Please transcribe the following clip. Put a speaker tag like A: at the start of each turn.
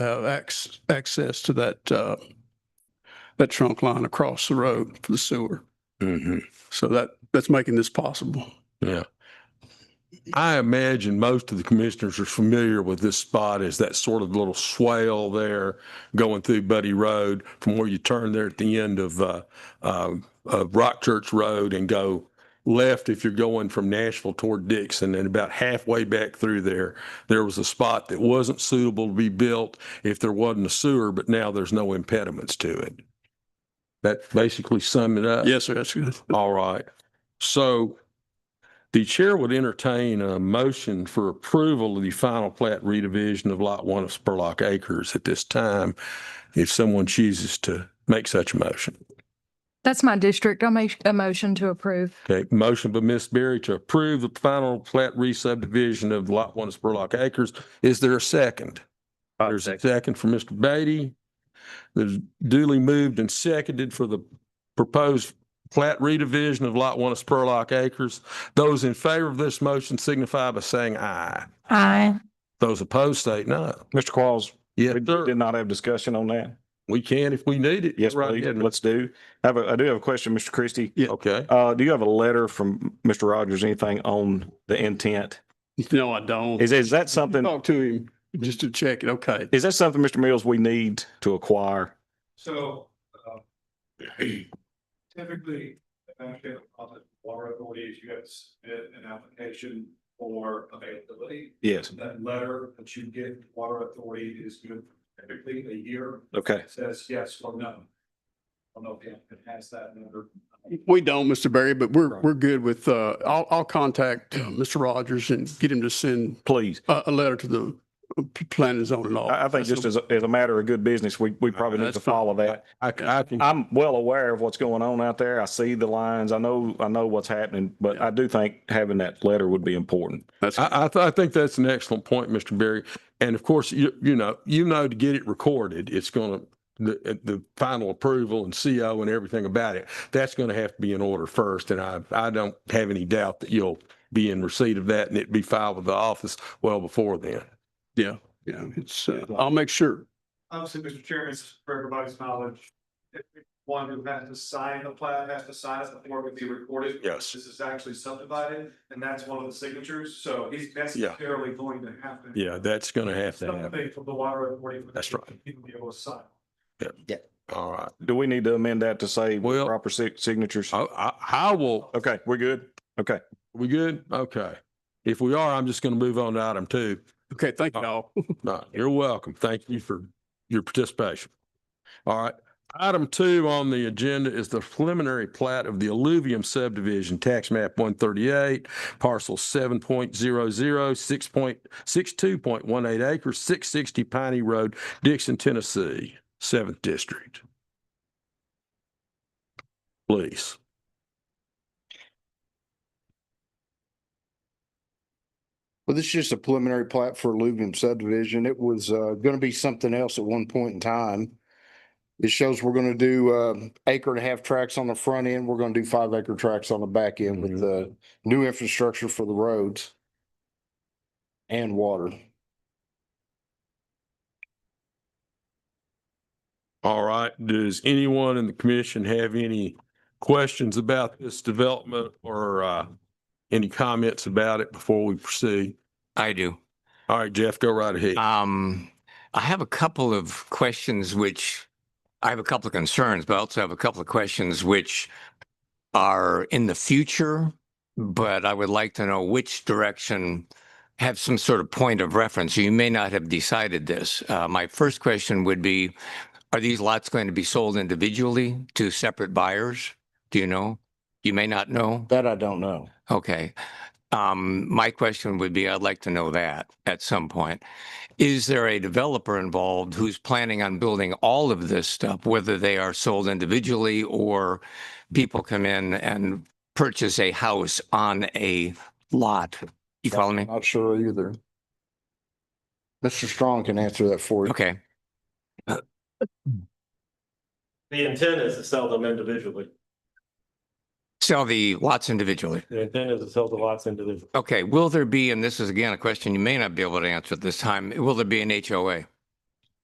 A: have ac- access to that, uh, that trunk line across the road for the sewer.
B: hmm
A: So that, that's making this possible.
B: yeah. I imagine most of the commissioners are familiar with this spot as that sort of little swale there going through Buddy Road from where you turn there at the end of, uh, um, of Rock Church Road and go left if you're going from Nashville toward Dixon and about halfway back through there, there was a spot that wasn't suitable to be built if there wasn't a sewer, but now there's no impediments to it. That basically sum it up.
A: Yes, sir, that's good.
B: All right. So the chair would entertain a motion for approval of the final plat redivision of Lot One of Spurlock Acres at this time, if someone chooses to make such a motion.
C: That's my district. I'll make a motion to approve.
B: Okay, motion by Ms. Berry to approve the final plat re-subdivision of Lot One of Spurlock Acres. Is there a second? There's a second for Mr. Beatty. There's duly moved and seconded for the proposed plat redivision of Lot One of Spurlock Acres. Those in favor of this motion signify by saying aye.
C: Aye.
B: Those opposed, state no.
D: Mr. Qualls,
B: Yes,
D: we
B: sir.
D: did not have discussion on that.
B: We can if we need it.
D: Yes,
B: Right
D: please,
B: ahead.
D: let's do. I have a, I do have a question, Mr. Christie.
B: Okay.
D: Uh, do you have a letter from Mr. Rogers, anything on the intent?
A: No, I don't.
D: Is, is that something,
A: Talk to him just to check it. Okay.
D: is that something, Mr. Mills, we need to acquire?
E: So, uh, typically, eventually, on the water authorities, you have to submit an application for availability.
D: Yes.
E: That letter that you get, from the water authority is good for typically a year,
D: Okay.
E: It says yes or no. I don't know if the applicant has that number.
A: We don't, Mr. Berry, but we're, we're good with, uh, I'll, I'll contact uh, Mr. Rogers and get him to send
D: Please.
A: a, a letter to the uh, p- planning zone and all.
D: I, I think just as, a- as a matter of good business, we, we probably need
A: That's
D: to follow that.
B: I, I can,
D: I'm well aware of what's going on out there. I see the lines. I know, I know what's happening, but I do think having that letter would be important.
A: That's,
B: I, I, th- I think that's an excellent point, Mr. Berry. And of course, you, you know, you know, to get it recorded, it's going to, the, uh, the final approval and CO and everything about it, that's going to have to be in order first. And I, I don't have any doubt that you'll be in receipt of that and it'd be filed with the office well before then.
A: yeah, yeah, it's, uh, I'll make sure.
E: Obviously, Mr. Chairman, it's for everybody's knowledge, if one who has to sign the plat has to sign it before it can be recorded.
B: Yes.
E: This is actually subdivided, and that's one of the signatures, so he's necessarily going to have to.
B: Yeah, that's going to have to happen.
E: Something from the water authority. for
B: That's right.
E: People to be able to sign.
B: All right.
D: Do we need to amend that to say
B: Well-
D: proper si- signatures?
B: I, I, I will,
D: Okay, we're good. Okay.
B: we good? Okay. If we are, I'm just going to move on to item two.
A: Okay, thank
D: Uh,
A: you all.
B: No, you're welcome. Thank you for your participation. All right. Item two on the agenda is the preliminary plat of the Alluvium subdivision, tax map one thirty-eight, parcel 7.00, 6.62.18 acres, six sixty Piney Road, Dixon, Tennessee, seventh district. Please.
F: Well, this is just a preliminary plat for Lubium subdivision. It was uh gonna be something else at one point in time. It shows we're gonna do uh acre and a half tracks on the front end. We're gonna do five acre tracks on the back end with the new infrastructure for the roads. And water.
B: All right. Does anyone in the commission have any questions about this development or uh, any comments about it before we proceed?
G: I do.
B: All right, Jeff, go right ahead.
G: Um, I have a couple of questions which I have a couple of concerns, but I also have a couple of questions which are in the future, but I would like to know which direction have some sort of point of reference. You may not have decided this. Uh, my first question would be, are these lots going to be sold individually to separate buyers? Do you know? You may not know.
F: That I don't know.
G: Okay. Um, my question would be, I'd like to know that at some point. Is there a developer involved who's planning on building all of this stuff, whether they are sold individually or people come in and purchase a house on a lot? You follow me?
F: Not sure either. Mr. Strong can answer that for you.
G: Okay.
H: The intent is to sell them individually.
G: Sell the lots individually.
H: The intent is to sell the lots individually.
G: Okay. Will there be, and this is again a question you may not be able to answer at this time, will there be an HOA?